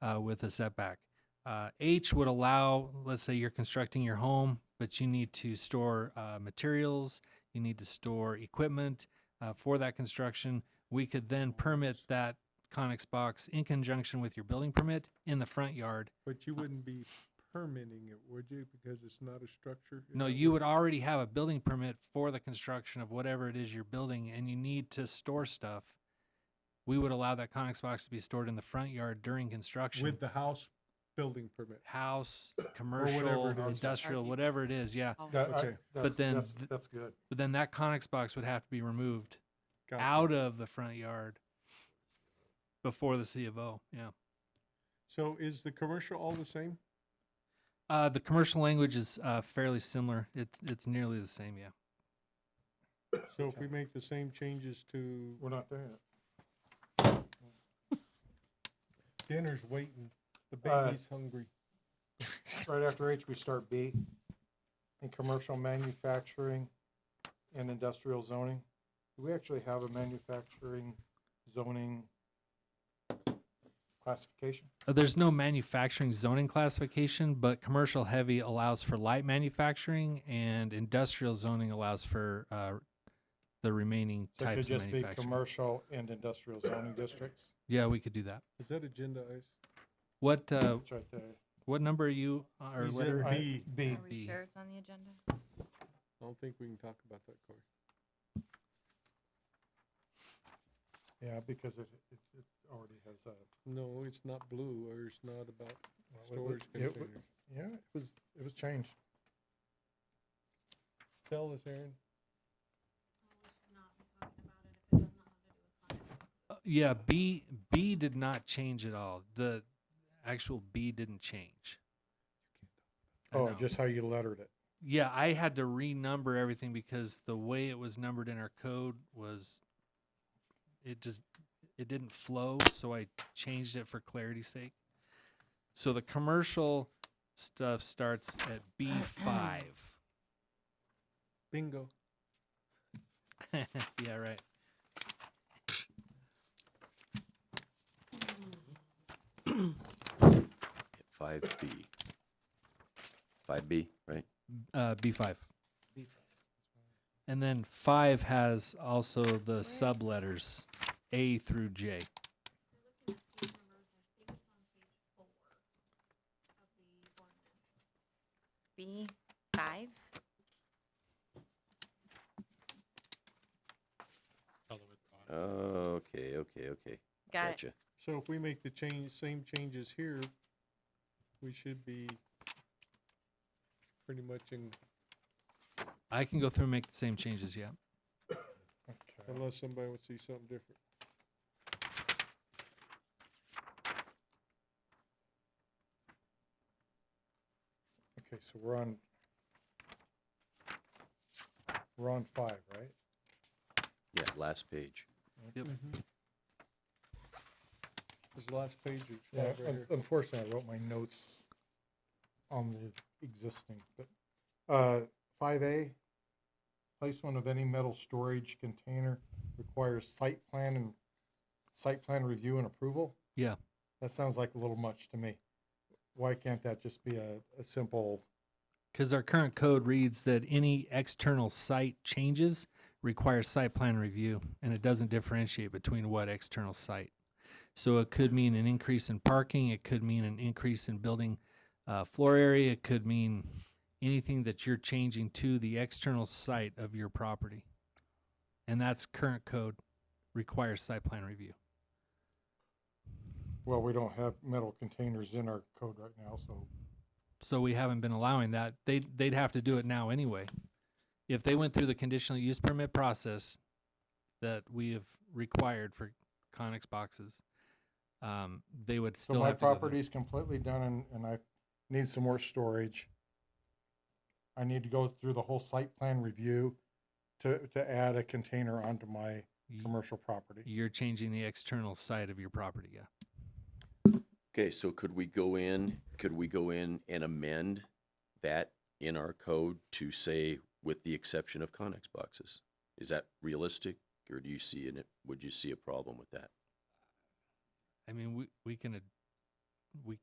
uh, with a setback. Uh, H would allow, let's say you're constructing your home, but you need to store uh, materials, you need to store equipment uh, for that construction. We could then permit that Conex box in conjunction with your building permit in the front yard. But you wouldn't be permitting it, would you? Because it's not a structure? No, you would already have a building permit for the construction of whatever it is you're building, and you need to store stuff. We would allow that Conex box to be stored in the front yard during construction. With the house building permit. house, whatever commercial, it is. industrial, whatever it is, Oh. yeah. That- I- Okay. that's- then that's- th- That's good. But then that Conex box would have to be removed Gotcha. out of the front yard before the C of O, yeah. So is the commercial all the same? Uh, the commercial language is, uh, fairly similar. It's, it's nearly the same, yeah. So if we make the same changes to We're not there yet. dinner's waiting, the Uh, baby's hungry. Right after H, we start B, in commercial manufacturing and industrial zoning. Do we actually have a manufacturing zoning classification? Uh, There's no manufacturing zoning classification, but commercial heavy allows for light manufacturing and industrial zoning allows for, uh, the remaining So it could types of just be manufacturing. commercial and industrial zoning districts. Yeah, we could do that. Is that agendized? What, uh, It's right there. what number are you, uh, or He's in letter? I- B. B. Are B. we sure it's on the agenda? I don't think we can talk about that, Corey. Yeah, because it, it, it already has a. No, it's not blue, or it's not about well, it was- storage it wa- containers. Yeah, it was, it was changed. Tell us, Aaron. Uh, Yeah, B B did not change at all. The actual B didn't change. I Oh, know. just how you lettered it. yeah. I had to renumber everything because the way it was numbered in our code was it just it didn't flow. So I changed it for clarity's sake. So the commercial stuff starts at B five. Bingo. yeah, right. Five B. Five B, right? Uh, B five. And then five has also the sub letters A through J. B five? Oh, okay, okay, okay. Got it. Gotcha. So if we make the change, same changes here, we should be pretty much in, I can go through and make the same changes, yeah. Okay. unless somebody would see something different. Okay, so we're on, we're on five, right? Yeah, last page. This last page is Yeah, right here. un- unfortunately, I wrote my notes on the existing, but, uh, five A, placement of any metal storage container requires site plan and, site plan review and approval? Yeah. That sounds like a little much to me. Why can't that just be a, a simple, Because our current code reads that any external site changes require site plan review, and it doesn't differentiate between what external site. So it could mean an increase in parking, it could mean an increase in building uh, floor area, it could mean anything that you're changing to the external site of your property. And that's current code requires site plan review. well, we don't have metal containers in our code right now, so. so we haven't been allowing that. They they'd have to do it now anyway. If they went through the conditional use permit process that we have required for Conex boxes, um, they would So still my have to go through. property's completely done and, and I need some more storage. I need to go through the whole site plan review to, to add a container onto my Y- commercial property. You're changing the external side of your property, yeah. Okay, so could we go in, could we go in and amend that in our code to say with the exception of Conex boxes? Is that realistic or do you see in it, would you see a problem with that? I mean, we we can ad- we